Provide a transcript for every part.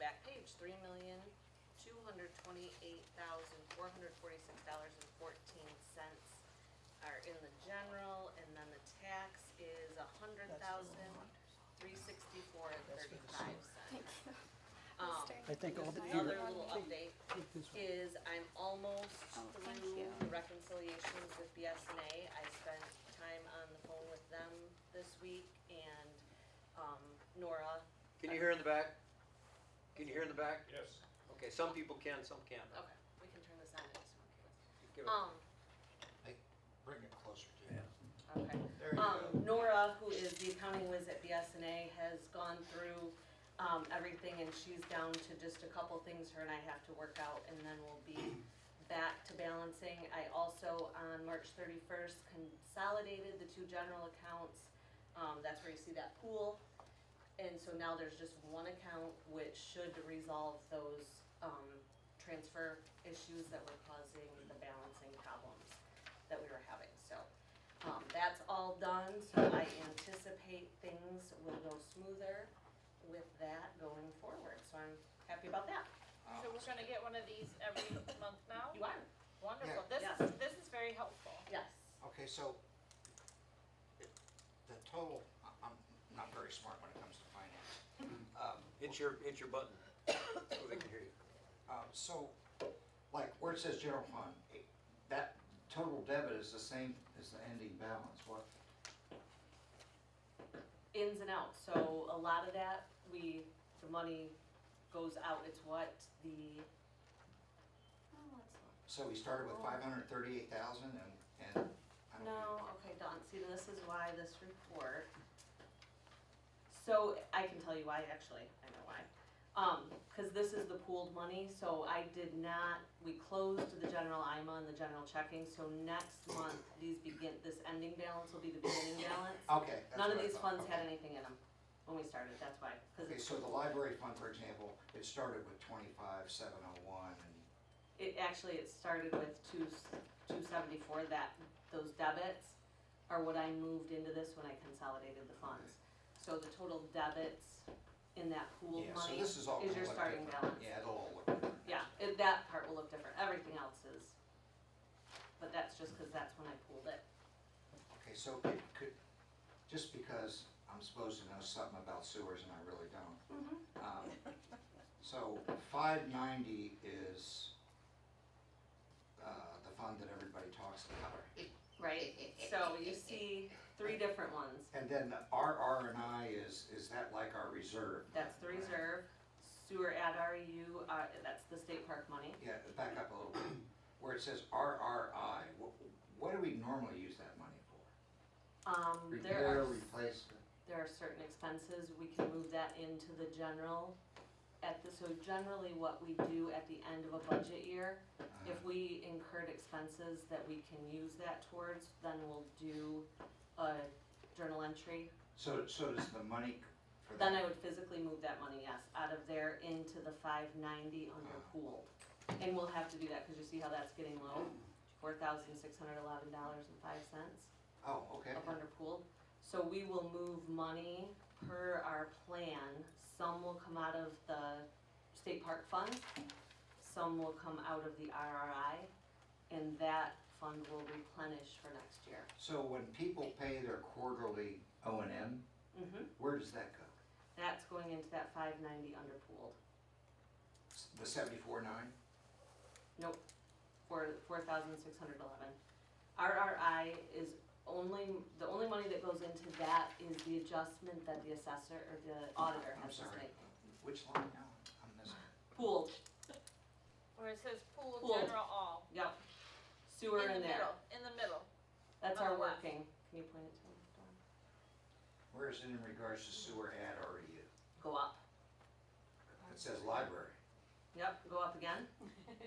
that page, three million, two hundred twenty-eight thousand, four hundred forty-six dollars and fourteen cents are in the general, and then the tax is a hundred thousand, three sixty-four and thirty-five cents. Um, I think all the, Another here, little update take this one. is I'm almost Oh, thank through you. the reconciliations with BSNA. I spent time on the phone with them this week and um, Nora. Can you hear in the back? Can you hear in the back? Yes. Okay, some people can, some can't. Okay, we can turn this on. if it's okay. Give it- Um, Hey, Bring it closer to you. okay. There you go. Um, Nora, who is the accounting whiz at BSNA, has gone through um, everything and she's down to just a couple things her and I have to work out and then we'll be back to balancing. I also, on March 31st, consolidated the two general accounts. Um, That's where you see that pool. And so now there's just one account which should resolve those um, transfer issues that were causing the balancing problems that we were having. So um, that's all done, so I anticipate things will go smoother with that going forward, so I'm happy about that. So we're gonna get one of these every month now? You are? Wonderful, this Yeah. is, this is very helpful. Yes. Okay, so it- the total, I- I'm not very smart when it comes to finance. Um, Hit your, hit your button, so they can hear you. uh, So, like, where it says general fund, it- that total debit is the same as the ending balance, what? Ins and outs, so a lot of that, we, the money goes out, it's what the, oh, let's look. So we started with five hundred thirty-eight thousand and, and. I don't- No, okay, Dawn, see, this is why this report. So I can tell you why, actually, I know why. Um, cause this is the pooled money, so I did not, we closed the general IMA and the general checking, so next month, these begin, this ending balance will be the beginning balance. Okay. Oh, that's None of what I these thought, funds had okay. anything in them when we started, that's why, cause it, Okay, so the library fund, for example, it started with twenty-five, seven oh one and it actually, it started with two, two seventy-four, that, those debits are what I moved into this when I consolidated the funds. So the total debits in that pool Yeah, so money this is is all your gonna look starting different. balance. Yeah, it'll all look different. Yeah, it- that part will look different, everything else is, but that's just cause that's when I pulled it. Okay, so it could, just because I'm supposed to know something about sewers and I really don't. Mm-hmm. Um, So five ninety is uh, the fund that everybody talks about. Right, so you see three different ones. And then the RR and I is, is that like our reserve? That's the reserve, sewer at REU, uh, that's the state park money. Yeah, back up a little bit, where it says RRI, what, what do we normally use that money for? Um, there Repair, are, replacement? there are certain expenses, we can move that into the general. At the, so generally what we do at the end of a budget year, uh, if we incurred expenses that we can use that towards, then we'll do a journal entry. So, so does the money for that? Then I would physically move that money, yes, out of there into the five ninety under pool. And we'll have to do that, cause you see how that's getting low, four thousand six hundred eleven dollars and five cents Oh, okay. up under pool. So we will move money per our plan, some will come out of the state park fund, some will come out of the RRI, and that fund will replenish for next year. So when people pay their quarterly O and M, hmm where does that go? that's going into that five ninety under pool. S- The seventy-four nine? Nope, for four thousand six hundred eleven. RRI is only, the only money that goes into that is the adjustment that the assessor or the auditor I'm has to sorry, make. which line now? I'm missing. Pool, Where it says pool, Pool. general, all. yep, sewer the in there, middle. In the middle. that's on our the left. working, can you point it to me? Dawn? Where is it in regards to sewer ad REU? Go up, It says library. yep, go up again,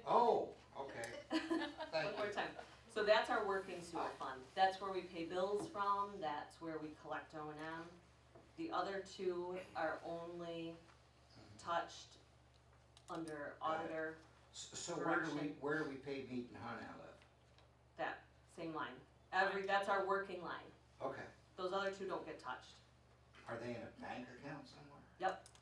Oh, okay, one thank more you. time. So that's our working sewer fund, that's where we pay bills from, that's where we collect O and M. The other two are only touched under Got it. auditor S- So where do we, Correction. where do we pay meat and hunt out of? That same line. Every, that's our working line. Okay, Those other two don't get touched. are they in a bank account somewhere? Yep,